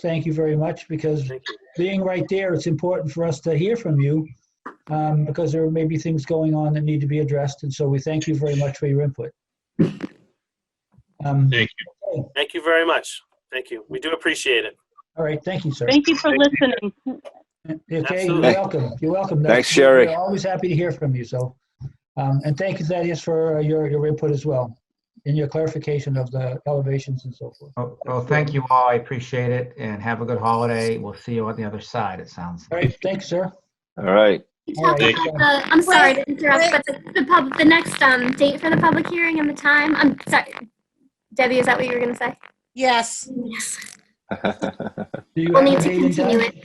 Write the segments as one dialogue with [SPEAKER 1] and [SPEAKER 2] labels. [SPEAKER 1] thank you very much because
[SPEAKER 2] Thank you.
[SPEAKER 1] being right there, it's important for us to hear from you um, because there may be things going on that need to be addressed. And so we thank you very much for your input. Um,
[SPEAKER 3] Thank
[SPEAKER 2] Thank you very much. Thank you. We do appreciate it.
[SPEAKER 1] All right, thank you, sir. Uh,
[SPEAKER 4] Thank you for listening.
[SPEAKER 1] Okay, you're
[SPEAKER 2] Absolutely.
[SPEAKER 1] welcome. You're welcome.
[SPEAKER 5] Thanks,
[SPEAKER 1] That's-
[SPEAKER 5] Sherry.
[SPEAKER 1] We're always happy to hear from you, so. um, And thank you, Thaddeus, for uh, your, your input as well, and your clarification of the elevations and so forth.
[SPEAKER 6] Well, well, thank you all. I appreciate it and have a good holiday. We'll see you on the other side, it sounds.
[SPEAKER 1] All right, thanks, sir.
[SPEAKER 5] All right.
[SPEAKER 1] All right.
[SPEAKER 3] Thank
[SPEAKER 1] uh,
[SPEAKER 7] Uh, I'm sorry to interrupt, but the, the pub, the next um, date for the public hearing and the time, I'm sorry. Debbie, is that what you were gonna say?
[SPEAKER 8] Yes,
[SPEAKER 7] Yes.
[SPEAKER 1] do you
[SPEAKER 7] We'll
[SPEAKER 1] have a
[SPEAKER 7] need to
[SPEAKER 1] date in
[SPEAKER 7] continue
[SPEAKER 1] time?
[SPEAKER 7] it.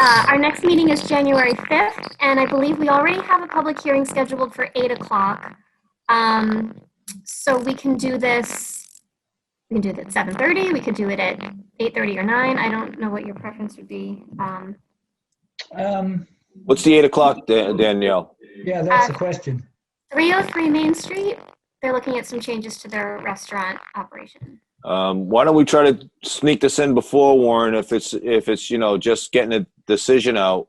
[SPEAKER 7] Uh, our next meeting is January 5th, and I believe we already have a public hearing scheduled for 8 o'clock. Um, so we can do this, we can do it at 7:30, we could do it at 8:30 or 9. I don't know what your preference would be. Um,
[SPEAKER 1] Um,
[SPEAKER 5] What's the eight o'clock, Da- Danielle?
[SPEAKER 1] Yeah, that's
[SPEAKER 7] Uh,
[SPEAKER 1] the question.
[SPEAKER 7] 303 Main Street, they're looking at some changes to their restaurant operation.
[SPEAKER 5] Um, why don't we try to sneak this in before Warren? If it's if it's you know just getting a decision out,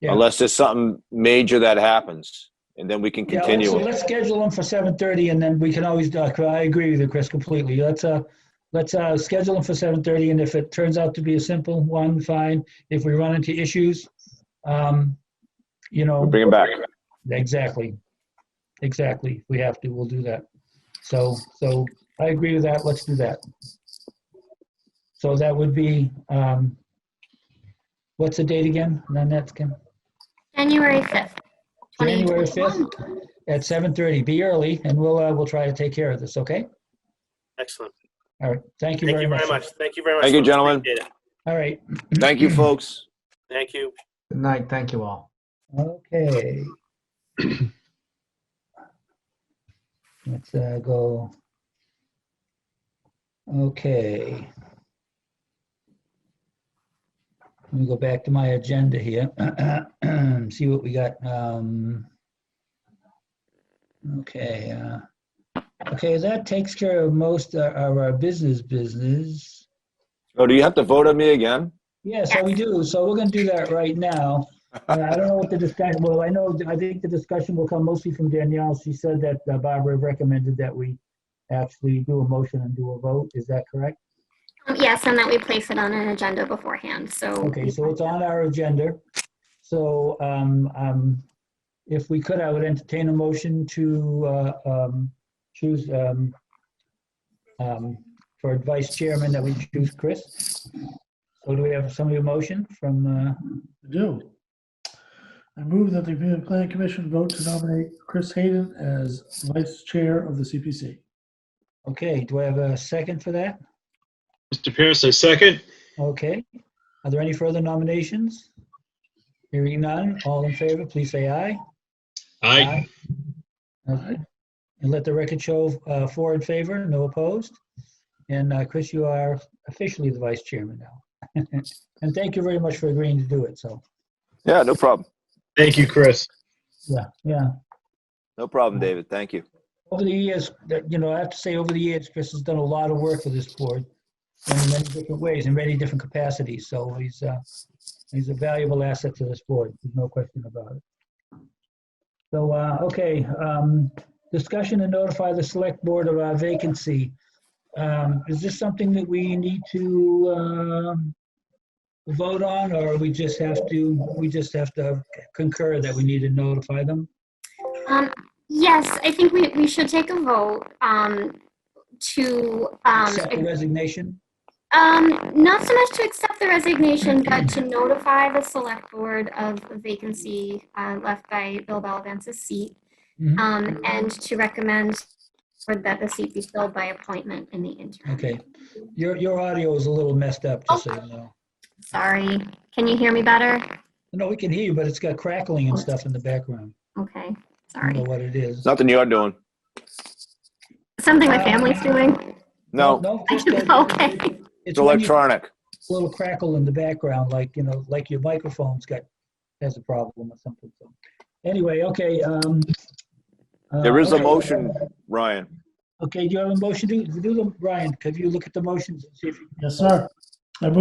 [SPEAKER 1] Yeah.
[SPEAKER 5] unless there's something major that happens, and then we can
[SPEAKER 1] Yeah, let's-
[SPEAKER 5] continue. it.
[SPEAKER 1] Let's schedule them for 7:30 and then we can always, uh, I agree with you, Chris, completely. Let's, uh, let's, uh, schedule them for 7:30 and if it turns out to be a simple one, fine. If we run into issues, um, you know.
[SPEAKER 5] We'll bring it back.
[SPEAKER 1] Exactly. Exactly. If we have to, we'll do that. So, so I agree with that. Let's do that. So that would be, um, what's the date again? None that's Kim?
[SPEAKER 7] January 5th.
[SPEAKER 1] January
[SPEAKER 7] 2021.
[SPEAKER 1] 5th at 7:30. Be early and we'll, uh, we'll try to take care of this, okay?
[SPEAKER 2] Excellent.
[SPEAKER 1] All right. Thank you
[SPEAKER 2] Thank
[SPEAKER 1] very
[SPEAKER 2] you
[SPEAKER 1] much.
[SPEAKER 2] very much. Thank you very much.
[SPEAKER 5] Thank you,
[SPEAKER 2] folks.
[SPEAKER 5] gentlemen.
[SPEAKER 2] Appreciate it.
[SPEAKER 1] All right.
[SPEAKER 5] Thank you, folks.
[SPEAKER 2] Thank you.
[SPEAKER 6] Good night. Thank you all.
[SPEAKER 1] Okay. Let's uh, go. Okay. Let me go back to my agenda here. See what we got. Um, Okay. uh, Okay, that takes care of most uh, of our business business.
[SPEAKER 5] Oh, do you have to vote on me again?
[SPEAKER 1] Yeah, so we do. So we're gonna do that right now. Uh, I don't know what the discussion, well, I know, I think the discussion will come mostly from Danielle. She said that uh, Barbara recommended that we actually do a motion and do a vote. Is that correct?
[SPEAKER 7] Um, Yes, and that we place it on an agenda beforehand, so.
[SPEAKER 1] Okay, so it's on our agenda. So um, um, if we could, I would entertain a motion to uh, um, choose um, um, for vice chairman that we choose Chris. So do we have somebody a motion from, uh,
[SPEAKER 9] I do. I move that the Community Planning Commission vote to nominate Chris Hayden as vice chair of the CPC.
[SPEAKER 1] okay, do I have a second for that?
[SPEAKER 3] Mr. Pierce, I second.
[SPEAKER 1] Okay, are there any further nominations? Hearing none, all in favor, please say aye.
[SPEAKER 3] Aye.
[SPEAKER 1] Okay. And let the record show uh, four in favor, no opposed. And uh, Chris, you are officially the vice chairman now. And thank you very much for agreeing to do it, so,
[SPEAKER 5] Yeah, no problem.
[SPEAKER 3] Thank you, Chris.
[SPEAKER 1] yeah, yeah.
[SPEAKER 5] No problem, David. Thank you.
[SPEAKER 1] over the years, that, you know, I have to say, over the years, Chris has done a lot of work for this board in many different ways, in many different capacities, so he's, uh, he's a valuable asset to this board, there's no question about it. So, uh, okay, um, discussion to notify the select board of our vacancy. Um, is this something that we need to, um, vote on, or we just have to, we just have to concur that we need to notify them?
[SPEAKER 7] Um, Yes, I think we, we should take a vote um, to, um,
[SPEAKER 1] Accept the resignation?
[SPEAKER 7] um, not so much to accept the resignation, but to notify the select board of a vacancy uh, left by Bill Balavance's seat.
[SPEAKER 1] Mhm.
[SPEAKER 7] um, And to recommend for that the seat be filled by appointment in the interim.
[SPEAKER 1] Okay, your, your audio is a little messed up, just so you know.
[SPEAKER 7] Sorry, can you hear me better?
[SPEAKER 1] No, we can hear you, but it's got crackling and stuff in the background.
[SPEAKER 7] Okay,
[SPEAKER 1] I don't know
[SPEAKER 7] sorry.
[SPEAKER 1] what it is.
[SPEAKER 5] It's nothing you're doing.
[SPEAKER 7] Something my family's doing?
[SPEAKER 5] No,
[SPEAKER 1] just that-
[SPEAKER 7] Okay.
[SPEAKER 5] it's
[SPEAKER 1] It's when you-
[SPEAKER 5] electronic.
[SPEAKER 1] it's a little crackle in the background, like, you know, like your microphone's got, has a problem or something. So Anyway, okay. um, uh,
[SPEAKER 5] There is a
[SPEAKER 1] okay.
[SPEAKER 5] motion, Ryan.
[SPEAKER 1] Okay, do you have a motion? Do, do them, Brian, could you look at the motions and see if you
[SPEAKER 9] Yes, sir.